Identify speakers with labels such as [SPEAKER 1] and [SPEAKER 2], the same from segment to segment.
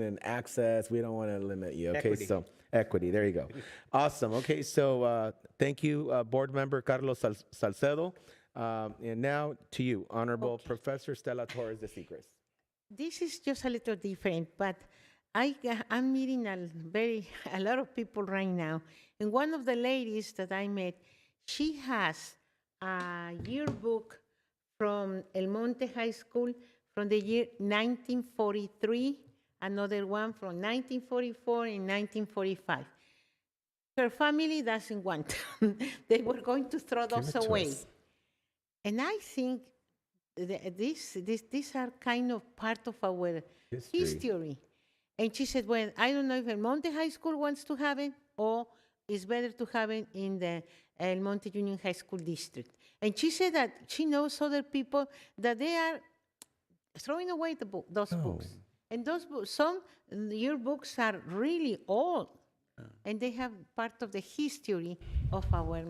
[SPEAKER 1] and access. We don't want to limit you. Okay,
[SPEAKER 2] Equity.
[SPEAKER 1] so equity. There you go. Awesome. Okay, so uh, thank you, uh, Board Member Carlos Sal- Salcedo. Um, and now to you, Honorable Professor Stella Torres de Segres.
[SPEAKER 3] This is just a little different, but I, ga- I'm meeting a very a lot of people right now, and one of the ladies that I met, she has a yearbook from El Monte High School from the year 1943, another one from 1944 and 1945. Her family doesn't want. them. they were going to throw those
[SPEAKER 1] to
[SPEAKER 3] away.
[SPEAKER 1] us.
[SPEAKER 3] And I think th- this, this, these are kind of part of our
[SPEAKER 1] History.
[SPEAKER 3] history. And she said, well, I don't know if El Monte High School wants to have it or it's better to have it in the El Monte Union High School District. And she said that she knows other people that they are throwing away the book, those books. And those books, some your books are really old, and they have part of the history of our.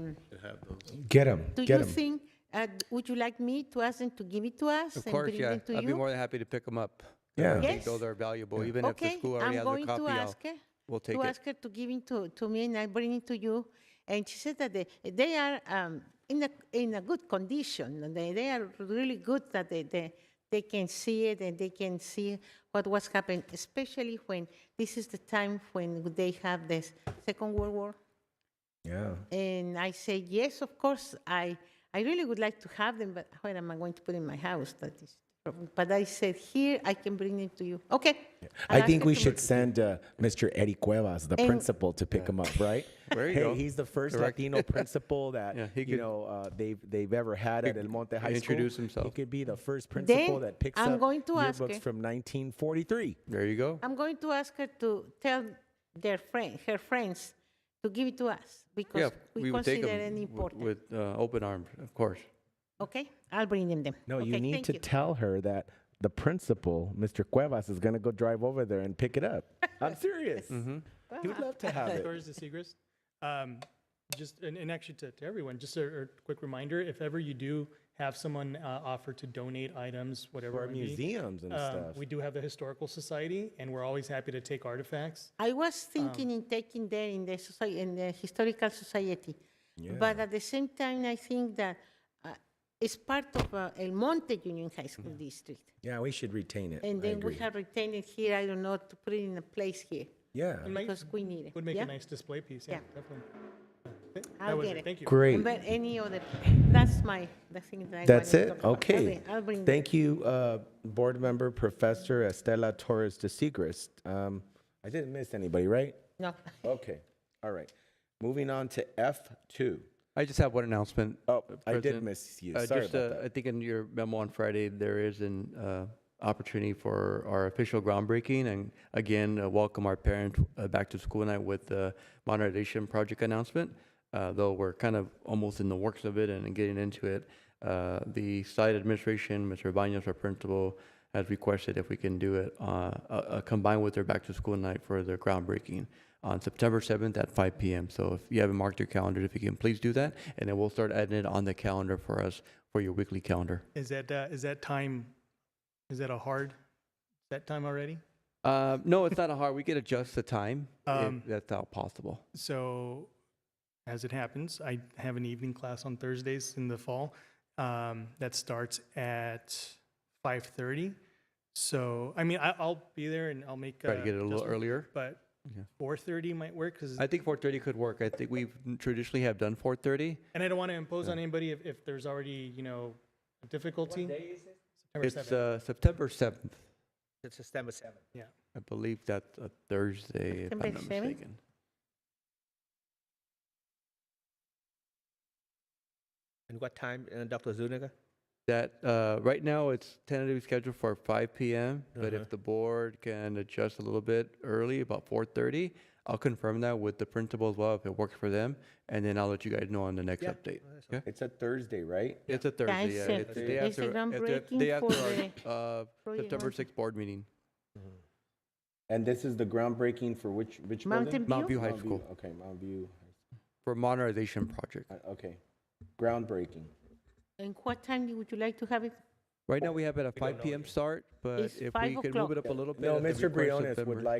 [SPEAKER 1] Get them.
[SPEAKER 3] Do you think? Uh, would you like me to ask them to give it to us
[SPEAKER 2] Of
[SPEAKER 3] and
[SPEAKER 2] course,
[SPEAKER 3] bring
[SPEAKER 2] yeah.
[SPEAKER 3] them to
[SPEAKER 2] I'd
[SPEAKER 3] you?
[SPEAKER 2] be more than happy to pick them up.
[SPEAKER 1] Yeah.
[SPEAKER 2] I think
[SPEAKER 3] Yes.
[SPEAKER 2] those are valuable, even if the
[SPEAKER 3] okay,
[SPEAKER 2] school already
[SPEAKER 3] I'm
[SPEAKER 2] has a
[SPEAKER 3] going
[SPEAKER 2] copy.
[SPEAKER 3] to
[SPEAKER 2] I'll-
[SPEAKER 3] ask her.
[SPEAKER 2] We'll take
[SPEAKER 3] to
[SPEAKER 2] it.
[SPEAKER 3] ask her to give it to, to me, and I bring it to you. And she said that they, they are um, in a in a good condition. and They they are really good that they, they they can see it and they can see what was happening, especially when this is the time when they have this Second World War.
[SPEAKER 1] Yeah.
[SPEAKER 3] And I say, yes, of course, I, I really would like to have them, but where am I going to put in my house? That is, the problem. but I said, here, I can bring it to you. Okay. I'll
[SPEAKER 1] I
[SPEAKER 3] ask
[SPEAKER 1] think
[SPEAKER 3] her
[SPEAKER 1] we
[SPEAKER 3] to
[SPEAKER 1] should
[SPEAKER 3] bring-
[SPEAKER 1] send uh, Mr. Eddie Cuevas, the
[SPEAKER 3] And-
[SPEAKER 1] principal, to pick him up, right?
[SPEAKER 2] There you
[SPEAKER 1] hey,
[SPEAKER 2] go.
[SPEAKER 1] he's the first
[SPEAKER 2] Direct.
[SPEAKER 1] Latino principal that
[SPEAKER 2] Yeah, he
[SPEAKER 1] you
[SPEAKER 2] could-
[SPEAKER 1] know uh, they've they've ever had at El Monte High School.
[SPEAKER 2] introduce himself.
[SPEAKER 1] He could be the first principal that picks
[SPEAKER 3] I'm
[SPEAKER 1] up
[SPEAKER 3] going to ask
[SPEAKER 1] yearbooks
[SPEAKER 3] her.
[SPEAKER 1] from 1943.
[SPEAKER 2] There you go.
[SPEAKER 3] I'm going to ask her to tell their friend, her friends to give it to us because
[SPEAKER 2] Yeah,
[SPEAKER 3] we,
[SPEAKER 2] we would take
[SPEAKER 3] consider
[SPEAKER 2] them
[SPEAKER 3] it important.
[SPEAKER 2] with uh, open arms, of course.
[SPEAKER 3] okay, I'll bring them them.
[SPEAKER 1] No, you
[SPEAKER 3] Okay,
[SPEAKER 1] need
[SPEAKER 3] thank
[SPEAKER 1] to
[SPEAKER 3] you.
[SPEAKER 1] tell her that the principal, Mr. Cuevas, is going to go drive over there and pick it up. I'm serious.
[SPEAKER 4] Mm-hmm.
[SPEAKER 1] He would love to have it.
[SPEAKER 5] Doris DeSegres. Um, just, and, and actually to, to everyone, just a, a quick reminder, if ever you do have someone uh, offer to donate items, whatever
[SPEAKER 1] For
[SPEAKER 5] it may be,
[SPEAKER 1] museums and
[SPEAKER 5] um,
[SPEAKER 1] stuff.
[SPEAKER 5] we do have the Historical Society, and we're always happy to take artifacts.
[SPEAKER 3] I was
[SPEAKER 5] Um.
[SPEAKER 3] thinking in taking there in the society, in the historical society, but at the same time, I think that uh, it's part of uh, El Monte Union High School
[SPEAKER 5] Mm-hmm.
[SPEAKER 3] District,
[SPEAKER 1] yeah, we should retain it.
[SPEAKER 3] and
[SPEAKER 1] I
[SPEAKER 3] then we
[SPEAKER 1] agree.
[SPEAKER 3] have retained it here. I don't know to put it in a place here
[SPEAKER 1] Yeah.
[SPEAKER 5] It might-
[SPEAKER 3] because we need it.
[SPEAKER 5] Would make
[SPEAKER 3] yeah?
[SPEAKER 5] a nice display piece, yeah,
[SPEAKER 3] Yeah.
[SPEAKER 5] definitely. Okay, that
[SPEAKER 3] I'll
[SPEAKER 5] was
[SPEAKER 3] get it.
[SPEAKER 5] Thank you.
[SPEAKER 1] Great.
[SPEAKER 3] But any other, that's my, the thing that I.
[SPEAKER 1] That's
[SPEAKER 3] wanted to
[SPEAKER 1] it?
[SPEAKER 3] talk about.
[SPEAKER 1] Okay.
[SPEAKER 3] I'll bring them.
[SPEAKER 1] Thank you, uh, Board Member Professor Estela Torres de Segrist. Um, I didn't miss anybody, right?
[SPEAKER 3] No.
[SPEAKER 1] Okay, all right. Moving on to F2.
[SPEAKER 2] I just have one announcement.
[SPEAKER 1] Oh,
[SPEAKER 2] uh,
[SPEAKER 1] I did
[SPEAKER 2] President.
[SPEAKER 1] miss you.
[SPEAKER 2] Uh,
[SPEAKER 1] Sorry
[SPEAKER 2] just,
[SPEAKER 1] about
[SPEAKER 2] uh,
[SPEAKER 1] that.
[SPEAKER 2] I think in your memo on Friday, there is an uh, opportunity for our official groundbreaking, and again, uh, welcome our parent uh, back to school night with the modernization project announcement. Uh, though we're kind of almost in the works of it and getting into it, uh, the site administration, Mr. Banos, our principal, has requested if we can do it uh, uh, uh, combined with their back to school night for their groundbreaking on September 7th at 5 p.m. So if you haven't marked your calendar, if you can please do that, and then we'll start adding it on the calendar for us for your weekly calendar.
[SPEAKER 5] Is that, uh, is that time, is that a hard, is that time already?
[SPEAKER 2] Uh, no, it's not a hard. We can adjust the time
[SPEAKER 5] Um,
[SPEAKER 2] if that's all possible.
[SPEAKER 5] So, as it happens, I have an evening class on Thursdays in the fall um, that starts at five thirty. So, I mean, I, I'll be there and I'll make uh,
[SPEAKER 2] Try to get it a little
[SPEAKER 5] adjustments,
[SPEAKER 2] earlier.
[SPEAKER 5] but
[SPEAKER 2] Yeah.
[SPEAKER 5] four thirty might work because,
[SPEAKER 2] I think 4:30 could work. I think we traditionally have done 4:30.
[SPEAKER 5] and I don't want to impose on anybody if, if there's already you know a difficulty. September
[SPEAKER 2] It's
[SPEAKER 5] 7th.
[SPEAKER 2] uh, September 7th.
[SPEAKER 4] It's September 7th.
[SPEAKER 5] yeah.
[SPEAKER 2] I believe that's a Thursday, if
[SPEAKER 3] September
[SPEAKER 2] I'm not
[SPEAKER 3] 7th?
[SPEAKER 2] mistaken.
[SPEAKER 4] And what time, uh, Dr. Zuniga?
[SPEAKER 2] That uh, right now it's tentatively scheduled for 5 p.m. But
[SPEAKER 4] Uh-huh.
[SPEAKER 2] if the board can adjust a little bit early, about 4:30, I'll confirm that with the principal as well if it works for them, and then I'll let you guys know on the next
[SPEAKER 4] Yeah,
[SPEAKER 2] update.
[SPEAKER 4] that's
[SPEAKER 2] Okay.
[SPEAKER 1] It's a Thursday, right?
[SPEAKER 2] It's a Thursday.
[SPEAKER 3] I
[SPEAKER 2] yeah.
[SPEAKER 3] said
[SPEAKER 2] It's the day
[SPEAKER 3] it's
[SPEAKER 2] after,
[SPEAKER 3] a
[SPEAKER 2] at the-
[SPEAKER 3] groundbreaking
[SPEAKER 2] day after
[SPEAKER 3] for Oh,
[SPEAKER 2] our, uh,
[SPEAKER 3] Project
[SPEAKER 2] September
[SPEAKER 3] Mountain-
[SPEAKER 2] 6th board meeting.
[SPEAKER 1] And this is the groundbreaking for which, which
[SPEAKER 3] Mountain
[SPEAKER 1] building?
[SPEAKER 2] Mount Mm-hmm. View
[SPEAKER 3] View?
[SPEAKER 2] High
[SPEAKER 1] Mount View,
[SPEAKER 2] School
[SPEAKER 1] Okay, Mount View.
[SPEAKER 2] for modernization project.
[SPEAKER 1] Uh, Okay, groundbreaking.
[SPEAKER 3] And what time you- would you like to have it?
[SPEAKER 2] Right now, we have it at
[SPEAKER 4] We don't
[SPEAKER 2] five
[SPEAKER 4] know
[SPEAKER 2] PM
[SPEAKER 4] yet.
[SPEAKER 2] start, but
[SPEAKER 3] It's
[SPEAKER 2] if
[SPEAKER 3] five
[SPEAKER 2] we could move
[SPEAKER 3] o'clock.
[SPEAKER 2] it up a little bit.
[SPEAKER 1] No,
[SPEAKER 2] at the
[SPEAKER 1] Mr.
[SPEAKER 2] request of
[SPEAKER 1] Briones would
[SPEAKER 2] September.
[SPEAKER 1] like